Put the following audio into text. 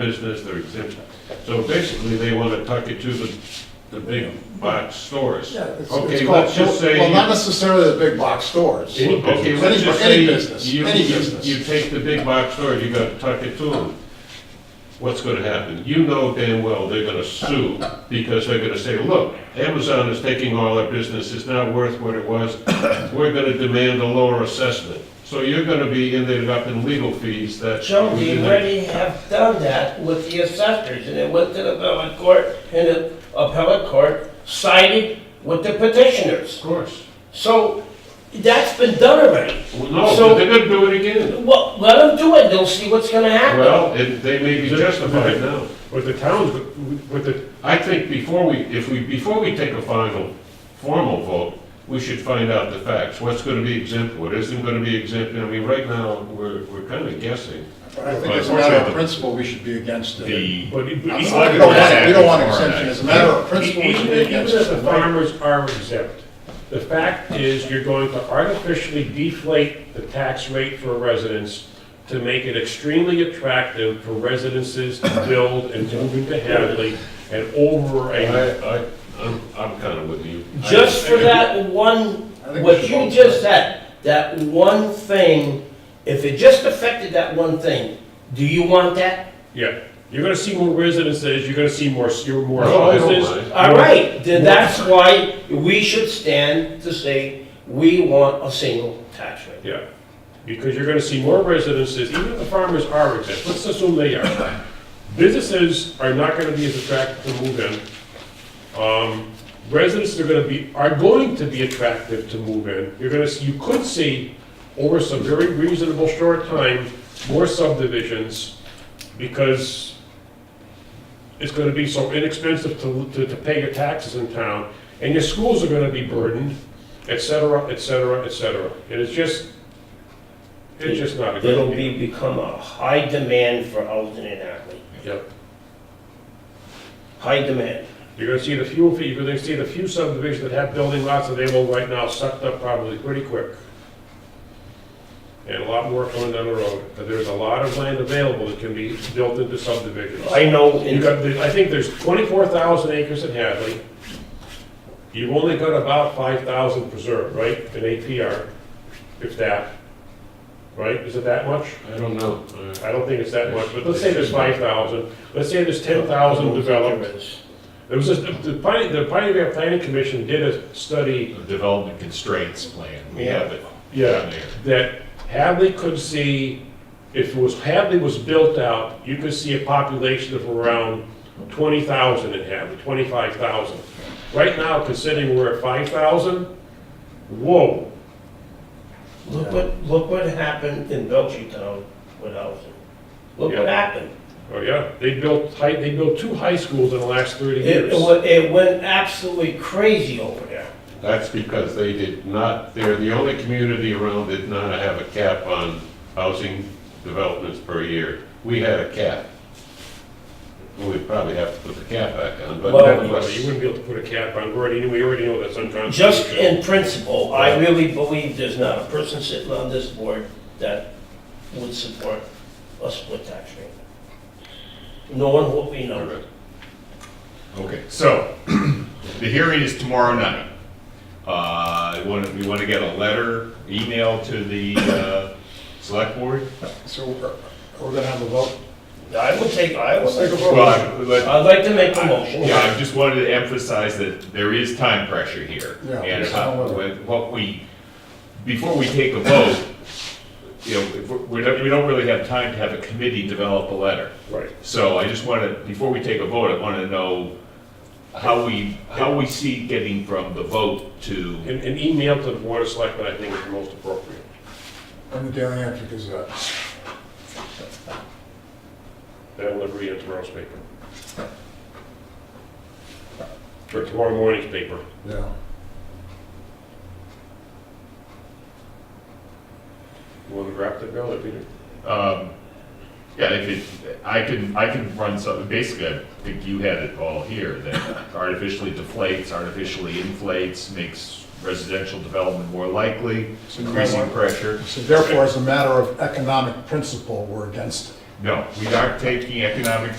business, they're exempt. So basically, they want to tuck it to the, the big box stores. Yeah, it's- it's Okay, called- let's just say. Well, not necessarily the big box stores. Well, Okay, Any- let's just say any business, you- any you- business. You take the big box stores, you gotta tuck it to them. What's gonna happen? You know damn well they're gonna sue, because they're gonna say, look, Amazon is taking all our business, it's not worth what it was, we're gonna demand a lower assessment. So you're gonna be ended up in legal fees that. So we we didn't- already have done that with the assessors, and it went to the appellate court, and the appellate court sided with the petitioners. Of course. So that's been done already. Well, No, So- they're gonna do it again. Well, let them do it, they'll see what's gonna happen. Well, it- they may be justified now. With the towns, with the, I think before we, if we, before we take a final, formal vote, we should find out the facts, what's gonna be exempt, what isn't gonna be exempt, I mean, right now, we're, we're kinda guessing. I think as a matter of principle, we should be against it. The, but. e- We but don't even- e, want, we don't want exemption, as a matter of principle, we should Even be even against if the it. farmers are exempt, the fact is you're going to artificially deflate the tax rate for residents to make it extremely attractive for residences to build and move into Hadley and over I, a. I, I'm, I'm kinda with you. I- Just for that one, I think we what should you vote. just said, that one thing, if it just affected that one thing, do you want that? Yeah, you're gonna see more residences, you're gonna see more, you're more No, I don't houses. mind. All more- right, then that's why we should stand to say, we want a single tax rate. Yeah, because you're gonna see more residences, even if the farmers are exempt, let's assume they are. Businesses are not gonna be as attractive to move in. Um, Residences are gonna be, are going to be attractive to move in. You're gonna, see- you could see, over some very reasonable short time, more subdivisions, because it's gonna be so inexpensive to, to, to pay your taxes in town, and your schools are gonna be burdened, et cetera, et cetera, et cetera. And it's just, it's just not a good It'll idea. be, become a high demand for housing in Ackley, Yep. high demand. You're gonna see the few, you're gonna see the few subdivisions that have building lots available right now sucked up probably pretty quick. And a lot more coming down the road, but there's a lot of land available that can be built into subdivisions. I know, You in- got, the- I think there's twenty-four thousand acres in Hadley. You've only got about five thousand preserved, right, in APR, if that, right, is it that much? I don't know. Uh, I don't think it's that much, but let's say there's five thousand, let's say there's ten thousand developed. There was, a- the Pioneer, the Pioneer Valley Planning Commission did a study development constraints plan, we have it. Yeah, that Hadley could see, if it was, Hadley was built out, you could see a population of around twenty thousand in Hadley, twenty-five thousand. Right now, considering we're at five thousand, whoa, look what, look what happened in Belchertown with housing. Look what Yeah. happened. oh yeah, they built high, they built two high schools in the last thirty It, years. it wa- it went absolutely crazy over there. That's because they did not, they're the only community around that did not have a cap on housing developments per year. We had a cap. We'd probably have to put the cap back on, but Well, Well, nevertheless. You wouldn't be able to put a cap on, we already, we already know that's unconstitutional. Just in principle, I really believe there's not a person sitting on this board that would support a split tax rate. No one will be All numbered. right. Okay, so, the hearing is tomorrow night. Uh, we wanna- we want to get a letter, email to the uh, select board? So we're, we're gonna have a vote? I would take, I would, Let's take a vote. Well, I- but- I'd like to make a motion. Yeah, I just wanted to emphasize that there is time pressure here. Yeah, And there's how- no other. with what we, before we take a vote, you know, if we're- we don't, we don't really have time to have a committee develop a letter. Right. So I just want to, before we take a vote, I want to know how we, how we see getting from the vote to, An, an email to the board of selectmen, I think is most appropriate. And the Daily Entry Gazette. That will agree in tomorrow's paper. Or tomorrow morning's paper. Yeah. You want to draft it, Bill, or Peter? um, yeah, if it, I can, I can run something, basically, I think you had it all here, that artificially deflates, artificially inflates, makes residential development more likely, So you might increasing want- pressure. So therefore, as a matter of economic principle, we're against it. No, we aren't taking economic